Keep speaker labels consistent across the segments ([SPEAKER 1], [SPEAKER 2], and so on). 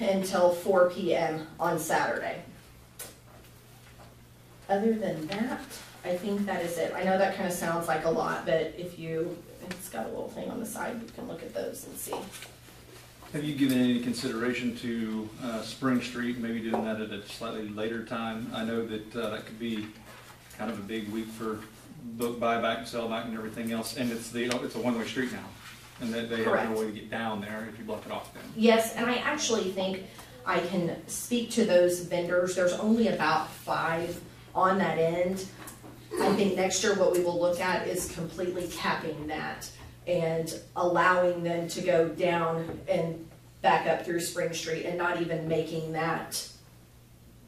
[SPEAKER 1] until four PM on Saturday. Other than that, I think that is it. I know that kind of sounds like a lot, but if you, it's got a little thing on the side, you can look at those and see.
[SPEAKER 2] Have you given any consideration to uh, Spring Street, maybe doing that at a slightly later time? I know that uh, that could be kind of a big week for book buyback, sellback and everything else, and it's the, it's a one-way street now. And that they have
[SPEAKER 1] Correct.
[SPEAKER 2] no way to get down there if you block it off then.
[SPEAKER 1] Yes, and I actually think I can speak to those vendors. There's only about five on that end. I think next year what we will look at is completely capping that and allowing them to go down and back up through Spring Street and not even making that,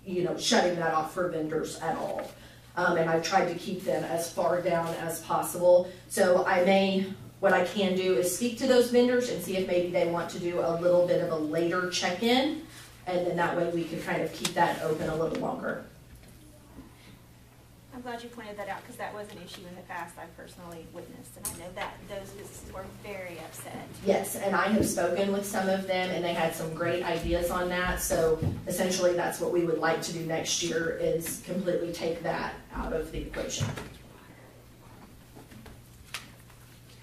[SPEAKER 1] you know, shutting that off for vendors at all. Um, and I've tried to keep them as far down as possible. So I may what I can do is speak to those vendors and see if maybe they want to do a little bit of a later check-in. And then that way we can kind of keep that open a little longer.
[SPEAKER 3] I'm glad you pointed that out, because that was an issue in the past I personally witnessed, and I know that those businesses were very upset.
[SPEAKER 1] Yes, and I have spoken with some of them and they had some great ideas on that. So essentially, that's what we would like to do next year is completely take that out of the equation.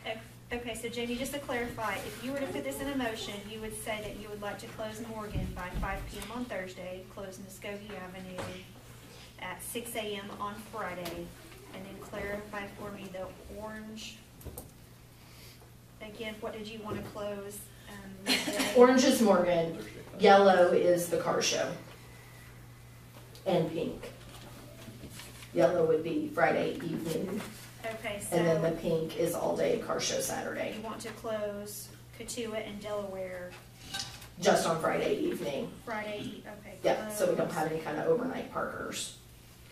[SPEAKER 3] Ok- Okay, so Jamie, just to clarify, if you were to put this in a motion, you would say that you would like to close Morgan by five P M on Thursday, close Muskogee Avenue at six A M on Friday, and then clarify for me the orange. Again, what did you want to close? um, Wednesday?
[SPEAKER 1] Orange is Morgan,
[SPEAKER 2] Thursday.
[SPEAKER 1] yellow is the car show. And pink. Yellow would be Friday evening
[SPEAKER 3] Okay, so.
[SPEAKER 1] And then the pink is all day car show
[SPEAKER 3] You
[SPEAKER 1] Saturday,
[SPEAKER 3] want to close Katua and Delaware
[SPEAKER 1] just on Friday evening.
[SPEAKER 3] Friday, okay.
[SPEAKER 1] Yeah, so we don't
[SPEAKER 3] close.
[SPEAKER 1] have any kind of overnight parkers.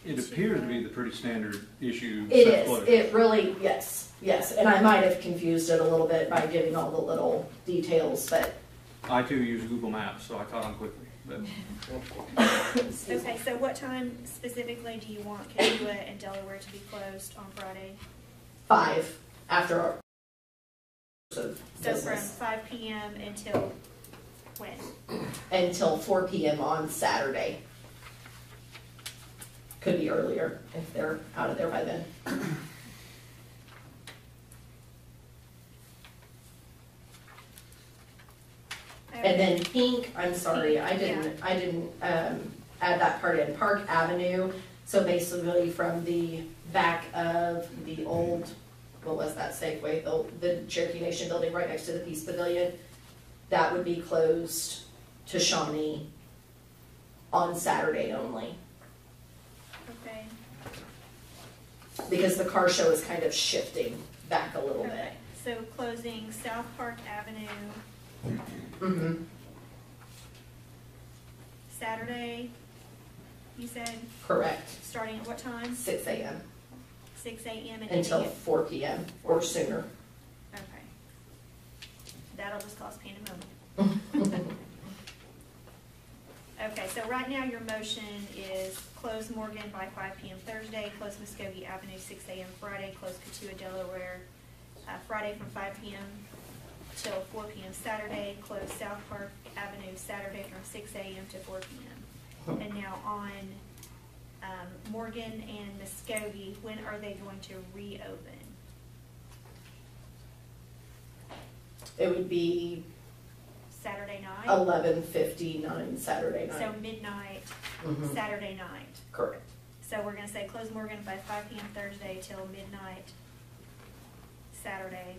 [SPEAKER 2] It appears to be the pretty standard issue.
[SPEAKER 1] It
[SPEAKER 2] set
[SPEAKER 1] is,
[SPEAKER 2] flow.
[SPEAKER 1] it really, yes, yes. And I might have confused it a little bit by giving all the little details, but.
[SPEAKER 2] I too use Google Maps, so I caught on quickly, but
[SPEAKER 3] Okay, so what time specifically do you want Katua and Delaware to be closed on Friday?
[SPEAKER 1] Five after our. of
[SPEAKER 3] So from
[SPEAKER 1] business
[SPEAKER 3] five PM until when?
[SPEAKER 1] Until four PM on Saturday. Could be earlier if they're out of there by then. And then pink, I'm sorry, I didn't, I didn't, um, add that part in, Park Avenue, so basically from the back of the old, what was that Safeway, the, the Cherokee Nation building right next to the Peace Pavilion, that would be closed to Shawnee on Saturday only,
[SPEAKER 3] Okay,
[SPEAKER 1] because the car show is kind of shifting back a little bit.
[SPEAKER 3] okay. So closing South Park Avenue
[SPEAKER 1] Mm-hmm,
[SPEAKER 3] Saturday, you said,
[SPEAKER 1] correct,
[SPEAKER 3] starting at what time?
[SPEAKER 1] six AM
[SPEAKER 3] Six AM and ending
[SPEAKER 1] until
[SPEAKER 3] at
[SPEAKER 1] four PM or sooner.
[SPEAKER 3] Okay. That'll just cause pandemonium. Okay, so right now your motion is close Morgan by five PM Thursday, close Muskogee Avenue six AM Friday, close Katua Delaware, uh, Friday from five PM till four PM Saturday, close South Park Avenue Saturday from six AM to four PM. And now on, um, Morgan and Muskogee, when are they going to reopen?
[SPEAKER 1] It would be
[SPEAKER 3] Saturday night?
[SPEAKER 1] Eleven fifty-nine Saturday
[SPEAKER 3] So
[SPEAKER 1] night.
[SPEAKER 3] midnight,
[SPEAKER 1] Mhm.
[SPEAKER 3] Saturday night.
[SPEAKER 1] Correct.
[SPEAKER 3] So we're gonna say close Morgan by five PM Thursday till midnight, Saturday.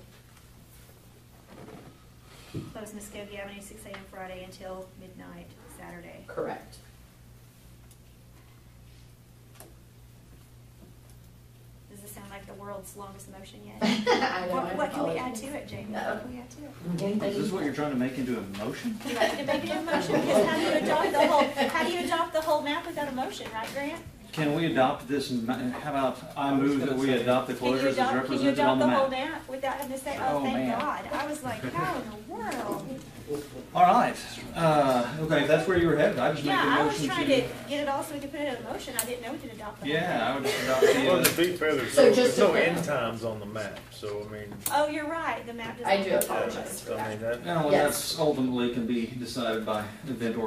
[SPEAKER 3] Close Muskogee Avenue six AM Friday until midnight, Saturday.
[SPEAKER 1] Correct.
[SPEAKER 3] Does this sound like the world's longest motion yet?
[SPEAKER 1] I know, I
[SPEAKER 3] What, what can we add
[SPEAKER 1] apologize.
[SPEAKER 3] to it, Jamie?
[SPEAKER 1] No.
[SPEAKER 3] What can we add to it?
[SPEAKER 2] is this
[SPEAKER 1] Anything?
[SPEAKER 2] what you're trying to make into a motion?
[SPEAKER 3] Do you like to make it a motion? Because how do you adopt the whole, how do you adopt the whole map without a motion, right, Grant?
[SPEAKER 2] Can we adopt this, ma- how about I move that we adopt the
[SPEAKER 3] Can you
[SPEAKER 2] closures as
[SPEAKER 3] adopt, can you
[SPEAKER 2] represented on
[SPEAKER 3] adopt
[SPEAKER 2] the
[SPEAKER 3] the whole
[SPEAKER 2] map?
[SPEAKER 3] map without having to say,
[SPEAKER 2] Oh,
[SPEAKER 3] oh, thank
[SPEAKER 2] man.
[SPEAKER 3] God? I was like, how in the world?
[SPEAKER 2] All right, uh, okay, if that's where you were headed, I just make a
[SPEAKER 3] Yeah, I was
[SPEAKER 2] motion
[SPEAKER 3] trying to
[SPEAKER 2] to.
[SPEAKER 3] get it all so we could put it in motion. I didn't know we could adopt the whole
[SPEAKER 2] Yeah, I
[SPEAKER 3] thing.
[SPEAKER 2] would just adopt the,
[SPEAKER 4] Well,
[SPEAKER 2] uh,
[SPEAKER 4] to be fair, there's
[SPEAKER 1] So
[SPEAKER 4] no,
[SPEAKER 1] just
[SPEAKER 4] there's
[SPEAKER 1] to
[SPEAKER 4] no
[SPEAKER 1] clear-
[SPEAKER 4] end times on the map, so I mean,
[SPEAKER 3] Oh, you're right. The map doesn't.
[SPEAKER 1] I do
[SPEAKER 4] yeah,
[SPEAKER 1] apologize for that.
[SPEAKER 4] I mean, that.
[SPEAKER 2] well,
[SPEAKER 1] Yes.
[SPEAKER 2] that's ultimately can be decided by event or